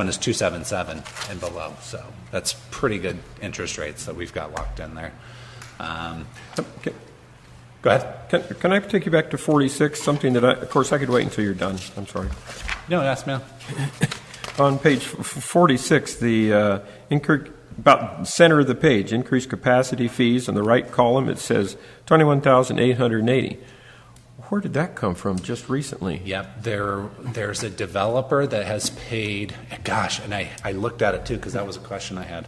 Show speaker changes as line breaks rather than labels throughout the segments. one is 277 and below, so that's pretty good interest rates that we've got locked in there. Um,
Can-
Go ahead.
Can, can I take you back to 46, something that I, of course, I could wait until you're done, I'm sorry.
No, yes, ma'am.
On page f- f- 46, the, uh, incre- about center of the page, increased capacity fees, on the right column, it says 21,880. Where did that come from just recently?
Yep, there, there's a developer that has paid, gosh, and I, I looked at it too, because that was a question I had.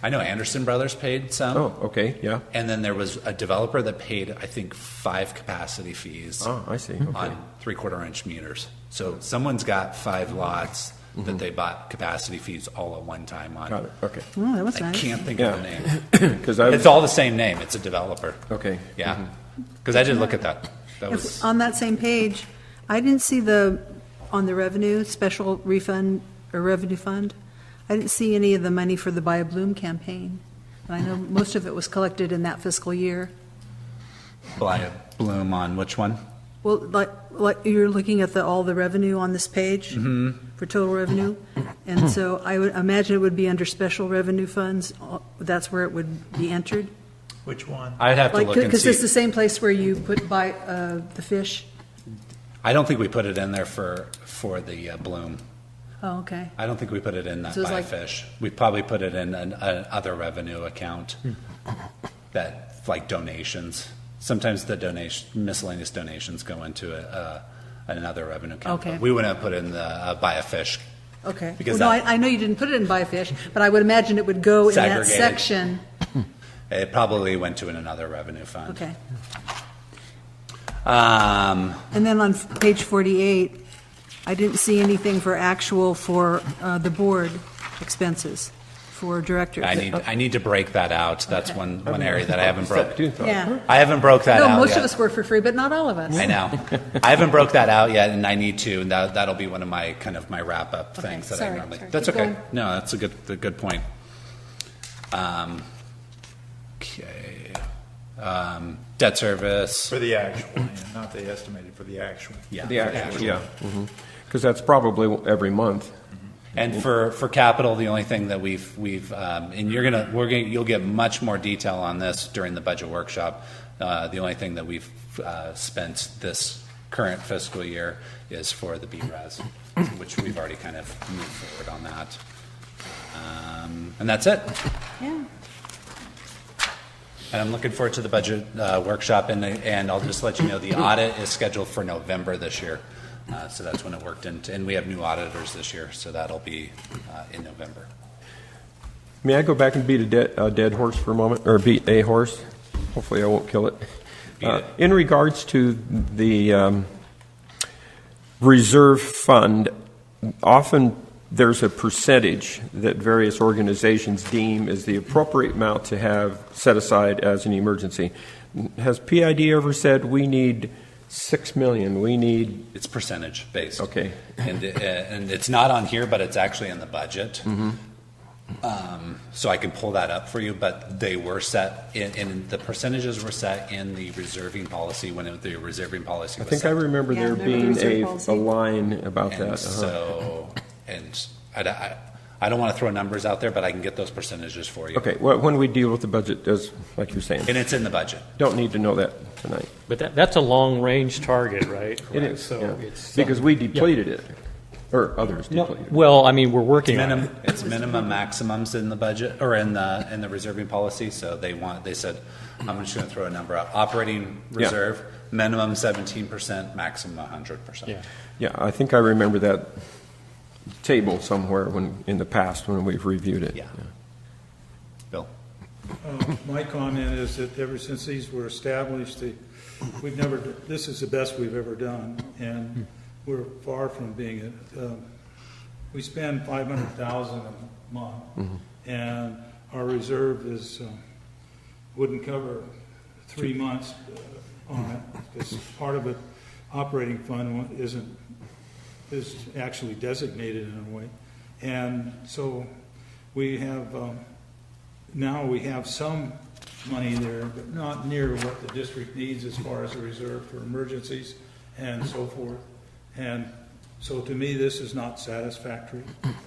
I know Anderson Brothers paid some.
Mm-hmm. Oh, okay, yeah.
And then there was a developer that paid, I think, five capacity fees
Oh, I see, okay.
on three quarter inch meters. So someone's got five lots that they bought capacity fees all at one time on.
Mm-hmm. Got it, okay.
Oh, that was
I
nice.
can't think of the
Yeah.
name.
Because I,
It's all the same name. It's a developer.
okay.
Yeah. Because I did look at that. That was,
If- uh, On that same page, I didn't see the, on the revenue, special refund or revenue fund, I didn't see any of the money for the Buy a Bloom campaign. And I know most of it was collected in that fiscal year.
Bly- Bloom on which one?
Well, like, like you're looking at the, all the revenue on this page
Mm-hmm.
for total revenue. And so I would imagine it would be under special revenue funds. uh, That's where it would be entered.
Which one?
I'd have to
Like,
look and
because it's the
see.
same place where you put buy, uh, the fish.
I don't think we put it in there for, for the uh, Bloom.
Oh, okay.
I don't think we put it in that
So it's
buy
like-
fish. We probably put it in an, an other revenue account that, like donations. Sometimes the donation, miscellaneous donations go into a, a, another revenue account.
Okay.
But We wouldn't have put in the uh, buy a fish.
Okay.
Because
Well, no,
that-
I, I know you didn't put it in buy fish, but I would imagine it would go in that
Segregated.
section.
It probably went to in another revenue fund.
Okay.
Um,
And then on f- page 48, I didn't see anything for actual for uh, the board expenses for directors.
I need, I need to break that out. That's
Okay.
one, one area that I haven't
Stop
broke.
doing that.
Yeah.
I haven't broke that out
No, most
yet.
of us work for free, but not all of us.
I know. I haven't broke that out yet, and I need to, and that, that'll be one of my, kind of my wrap-up
Okay,
things that I
sorry,
normally.
sorry.
That's
Keep
okay.
going.
No, that's a good, a good point. Um, okay. Um, debt service.
For the actual, yeah, not the estimated, for the actual.
Yeah.
The actual, yeah. Because that's probably every month.
And for, for capital, the only thing that we've, we've, um, and you're gonna, we're gonna, you'll get much more detail on this during the budget workshop. Uh, the only thing that we've, uh, spent this current fiscal year is for the BRAS, which we've already kind of moved forward on that. Um, and that's it.
Yeah.
And I'm looking forward to the budget, uh, workshop and, and I'll just let you know, the audit is scheduled for November this year. Uh, so that's when it worked and, and we have new auditors this year, so that'll be, uh, in November.
May I go back and beat a dead, a dead horse for a moment, or beat a horse? Hopefully, I won't kill it.
Beat
Uh,
it.
In regards to the um, reserve fund, often there's a percentage that various organizations deem is the appropriate amount to have set aside as an emergency. Has PID ever said we need six million? We need
It's percentage based.
okay.
And, uh, and it's not on here, but it's actually in the budget.
Mm-hmm.
Um, So I can pull that up for you, but they were set, in and the percentages were set in the reserving policy when it- the reserving policy
I
was
think I
set.
remember
Yeah,
there
remember
being
reserve
a,
policy?
a line about that.
And
uh-huh.
so, and I, I- I don't want to throw numbers out there, but I can get those percentages for you.
Okay, well, when we deal with the budget, as, like you're saying,
And it's in the budget.
don't need to know that tonight.
But that, that's a long-range target, right?
It is,
So
yeah.
it's-
Because we depleted it, or others depleted it.
Well, I mean, we're working on it.
Minimum, it's minimum maximums in the budget, or in the, in the reserving policy, so they want, they said, I'm just gonna throw a number out, operating
Yeah.
reserve, minimum seventeen percent, maximum hundred
Yeah.
percent.
Yeah, I think I remember that table somewhere when, in the past, when we've reviewed it.
Yeah. Bill?
Uh, My comment is that ever since these were established, the, we've never, this is the best we've ever done, and we're far from being, it. Um, we spend five hundred thousand a month, and our reserve is, um, wouldn't cover three months uh, on it, because part of it, operating fund isn't, is actually designated in a way. And so, we have, um, now we have some money there, but not near what the district needs as far as a reserve for emergencies and so forth. And so to me, this is not satisfactory.